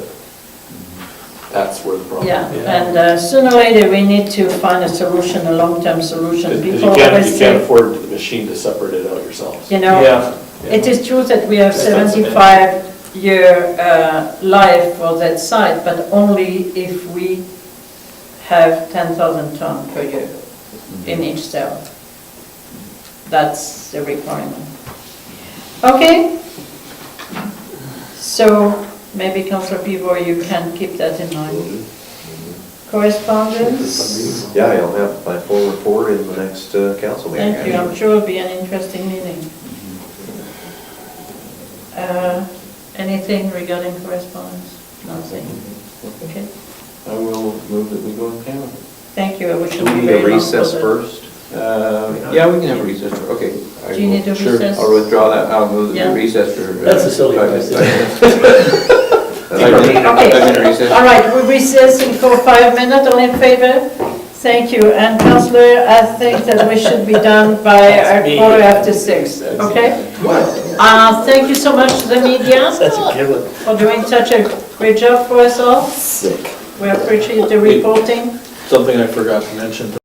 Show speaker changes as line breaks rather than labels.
That's where the problem
Yeah,
is.
and uh, sooner or later, we need to find a solution, a long-term solution.
Because you
People
can't,
always
you can't
say,
afford the machine to separate it out yourselves.
you know,
Yeah.
it is true that we have
That's not so bad.
75-year life for that site, but only if we have 10,000 ton per year
Mm-hmm.
in each cell. That's the requirement. Okay? So maybe Councillor Pivot, you can keep that in mind. Correspondence?
Yeah, you'll have my full report in the next uh, council meeting.
Thank you, I'm sure it'll be an interesting meeting. Uh, Anything regarding correspondence? Nothing? Okay,
I will move that we go in camera.
thank you, I wish
Do
you were
we need a
very long
recess
for that.
first?
Uh, Yeah, we can have a recess, for- okay. I
Do you need a
will- sure,
recess?
I'll withdraw that, I'll move that
Yeah.
we recess for. uh,
That's a silly
five
question.
minutes. Five
That's-
minute- five
Okay,
minute
all
recess.
right, we recessing for five minutes, all in favor? Thank you, and councillor, I think that we should be done by a quarter after six, okay? Uh, Thank you so much to the media for doing such a great job for us all.
Sick.
We appreciate the reporting.
Something I forgot to mention,